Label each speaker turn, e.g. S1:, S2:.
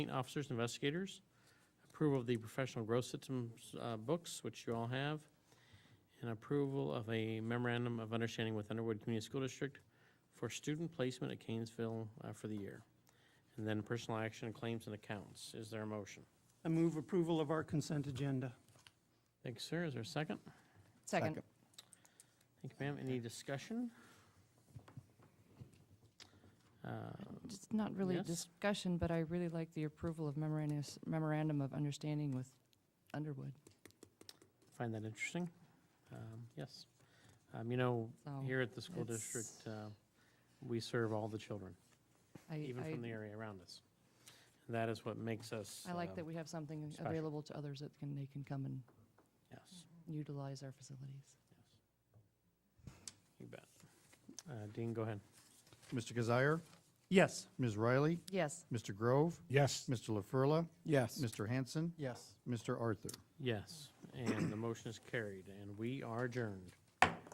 S1: Officers, and investigators, approval of the professional growth systems uh, books, which you all have, and approval of a memorandum of understanding with Underwood Community School District for student placement at Canesville uh, for the year. And then personal action, claims and accounts. Is there a motion?
S2: I move approval of our consent agenda.
S1: Thank you, sir. Is there a second?
S3: Second.
S1: Thank you, ma'am. Any discussion? Uh,
S3: It's not really a
S1: Yes?
S3: discussion, but I really like the approval of memorandum, memorandum of understanding with Underwood.
S1: Find that interesting. Um, Yes. Um, You know,
S3: So
S1: here at the school
S3: it's-
S1: district, uh, we serve all the children,
S3: I,
S1: even
S3: I,
S1: from the area around us. And that is what makes us.
S3: I like
S1: um,
S3: that we have something
S1: special.
S3: available to others that can, they can come and
S1: Yes,
S3: utilize our facilities.
S1: you bet. Uh, Dean, go ahead.
S4: Mr. Kazire,
S2: Yes.
S4: Ms. Riley,
S3: Yes,
S4: Mr. Grove,
S5: Yes.
S4: Mr. LaFurla,
S5: Yes.
S4: Mr. Hanson,
S2: Yes.
S4: Mr. Arthur.
S1: Yes, and the motion is carried, and we are adjourned.